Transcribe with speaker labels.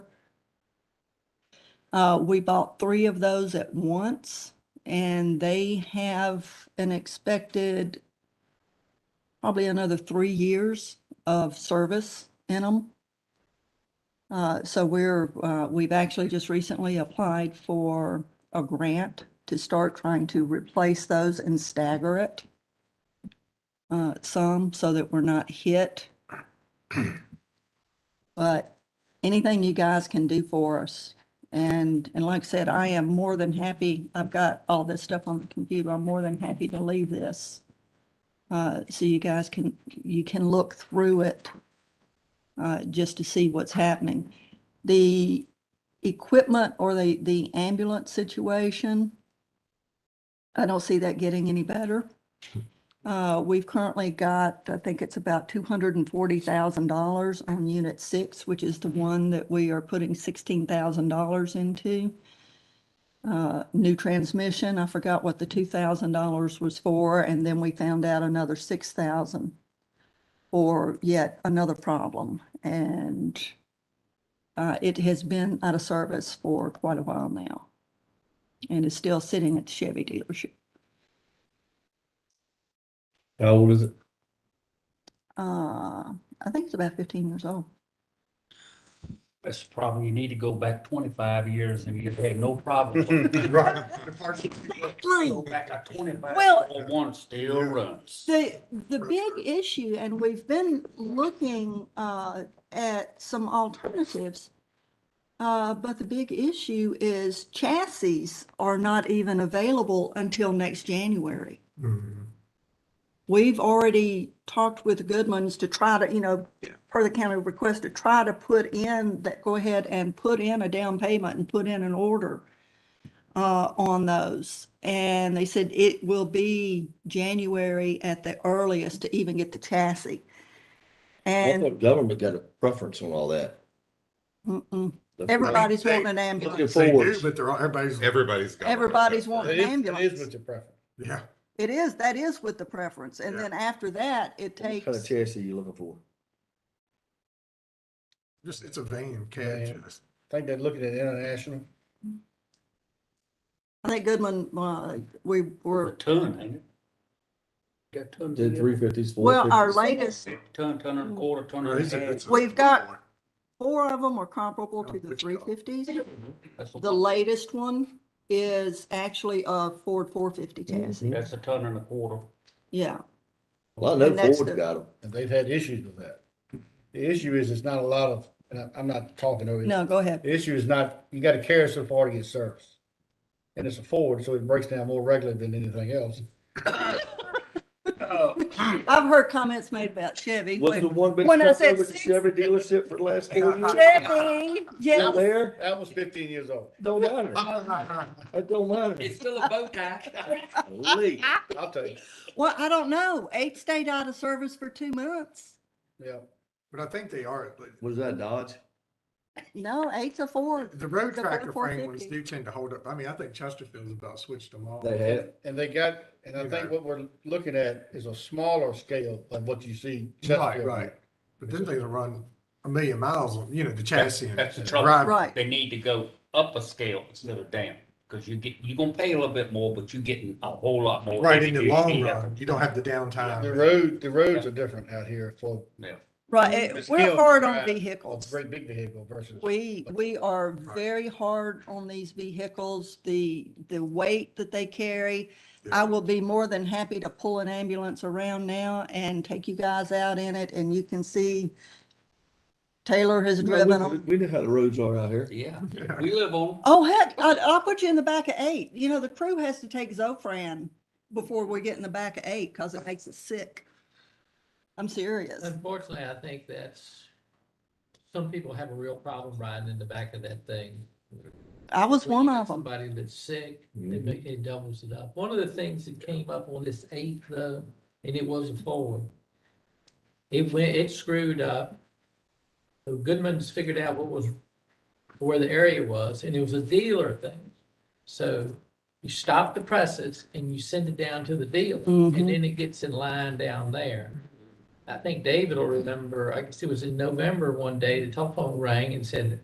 Speaker 1: Uh, we bought three of those at once and they have an expected probably another three years of service in them. Uh, so we're, uh, we've actually just recently applied for a grant to start trying to replace those and stagger it. Uh, some so that we're not hit. But anything you guys can do for us. And, and like I said, I am more than happy. I've got all this stuff on the computer. I'm more than happy to leave this. Uh, so you guys can, you can look through it, uh, just to see what's happening. The equipment or the, the ambulance situation, I don't see that getting any better. Uh, we've currently got, I think it's about two hundred and forty thousand dollars on unit six, which is the one that we are putting sixteen thousand dollars into. Uh, new transmission, I forgot what the two thousand dollars was for, and then we found out another six thousand for yet another problem, and uh, it has been out of service for quite a while now. And is still sitting at the Chevy dealership.
Speaker 2: How old is it?
Speaker 1: Uh, I think it's about fifteen years old.
Speaker 3: That's probably, you need to go back twenty-five years and you've had no problem.
Speaker 2: Right.
Speaker 3: Go back to twenty-five,
Speaker 1: Well-
Speaker 3: oh, one still runs.
Speaker 1: The, the big issue, and we've been looking uh, at some alternatives, uh, but the big issue is chassis are not even available until next January. We've already talked with Goodman's to try to, you know, per the county request, to try to put in, that go ahead and put in a down payment and put in an order uh, on those. And they said it will be January at the earliest to even get the chassis.
Speaker 4: I
Speaker 1: And
Speaker 4: thought government got a preference on all that.
Speaker 1: mm-mm,
Speaker 4: The-
Speaker 1: everybody's
Speaker 5: Hey,
Speaker 1: wanting an
Speaker 4: Looking
Speaker 1: ambulance.
Speaker 5: They do,
Speaker 4: forward.
Speaker 5: but they're, all- everybody's,
Speaker 6: Everybody's got. one.
Speaker 1: Everybody's wanting an ambulance.
Speaker 2: your preference.
Speaker 5: yeah.
Speaker 1: It is, that is with the preference. And
Speaker 5: Yeah.
Speaker 1: then after that, it
Speaker 4: What kind of
Speaker 1: takes,
Speaker 4: chassis you looking for?
Speaker 5: Just, it's a van, catch.
Speaker 2: Yeah. I think they're looking at international.
Speaker 1: I think Goodman, uh, we
Speaker 3: A
Speaker 1: were,
Speaker 3: ton, ain't it? Got tons.
Speaker 4: Did three fifties, four fifties?
Speaker 1: well, our latest,
Speaker 3: Ton, ton and a quarter, ton and a half.
Speaker 1: We've got- four of them are comparable to the
Speaker 5: Which color?
Speaker 1: three fifties.
Speaker 3: That's a-
Speaker 1: The latest one is actually a Ford four fifty chassis.
Speaker 4: Mm-hmm.
Speaker 3: That's a ton and a quarter.
Speaker 1: Yeah,
Speaker 4: Well, I know
Speaker 1: and that's
Speaker 4: Ford
Speaker 1: the-
Speaker 4: got them.
Speaker 2: And they've had issues with that. The issue is, it's not a lot of, and I- I'm not talking over you.
Speaker 1: no, go ahead.
Speaker 2: The issue is not, you gotta carry so far to get service. And it's a Ford, so it breaks down more regularly than anything else.
Speaker 1: I've heard comments made about Chevy.
Speaker 4: Was the one big
Speaker 1: When I
Speaker 4: truck
Speaker 1: said
Speaker 4: over at the
Speaker 1: six-
Speaker 4: Chevy dealership for the last four years?
Speaker 1: Chevy,
Speaker 4: Still
Speaker 1: yeah.
Speaker 4: there?
Speaker 2: That was fifteen years old.
Speaker 4: Don't matter. That don't matter.
Speaker 3: It's still a bow tie.
Speaker 4: Lee,
Speaker 2: I'll tell you,
Speaker 1: Well, I don't know. Eight stayed out of service for two months.
Speaker 2: yeah.
Speaker 5: But I think they are, but
Speaker 4: was that Dodge?
Speaker 1: No, eight's a Ford.
Speaker 5: the road
Speaker 1: The Ford
Speaker 5: tractor frame ones
Speaker 1: 450.
Speaker 5: do tend to hold up. I mean, I think Chesterfield's about switched them all.
Speaker 4: They had.
Speaker 2: And they got, and I think what we're looking at is a smaller scale of what you see.
Speaker 5: Right, right. But then they run a million miles on, you know, the chassis. and-
Speaker 3: That's the
Speaker 5: and
Speaker 3: trouble.
Speaker 5: drive.
Speaker 1: Right.
Speaker 3: They need to go up a scale instead of down, because you get, you're gonna pay a little bit more, but you're getting a whole lot more.
Speaker 5: Right, in the long
Speaker 3: execution.
Speaker 5: run, you don't have the
Speaker 2: The
Speaker 5: downtime.
Speaker 2: road, the roads are different out here for
Speaker 3: Yeah.
Speaker 1: Right,
Speaker 2: The
Speaker 1: eh,
Speaker 2: scale
Speaker 1: we're
Speaker 2: of
Speaker 1: hard
Speaker 2: the
Speaker 1: on
Speaker 2: drive. a
Speaker 1: vehicles.
Speaker 2: great big vehicle versus.
Speaker 1: We, we are very hard on these vehicles, the, the weight that they carry. I will be more than happy to pull an ambulance around now and take you guys out in it and you can see Taylor has driven
Speaker 4: We
Speaker 1: them.
Speaker 4: we know how the roads are out here.
Speaker 3: Yeah, we live on,
Speaker 1: Oh, heck, I, I'll put you in the back of eight. You know, the crew has to take Zofran before we get in the back of eight because it makes us sick. I'm serious.
Speaker 7: Uh, Unfortunately, I think that's, some people have a real problem riding in the back of that thing.
Speaker 1: I was
Speaker 7: When you
Speaker 1: one
Speaker 7: got
Speaker 1: of them.
Speaker 7: Somebody that's sick, it ma- it doubles it up. One of the things that came up on this eighth, though, and it was a Ford. It went, it screwed up. So Goodman's figured out what was, where the area was, and it was a dealer thing. So you stop the presses and you send it down to the dealer,
Speaker 1: Mhm.
Speaker 7: and then it gets in line down there. I think David will remember, I guess it was in November one day, the telephone rang and said,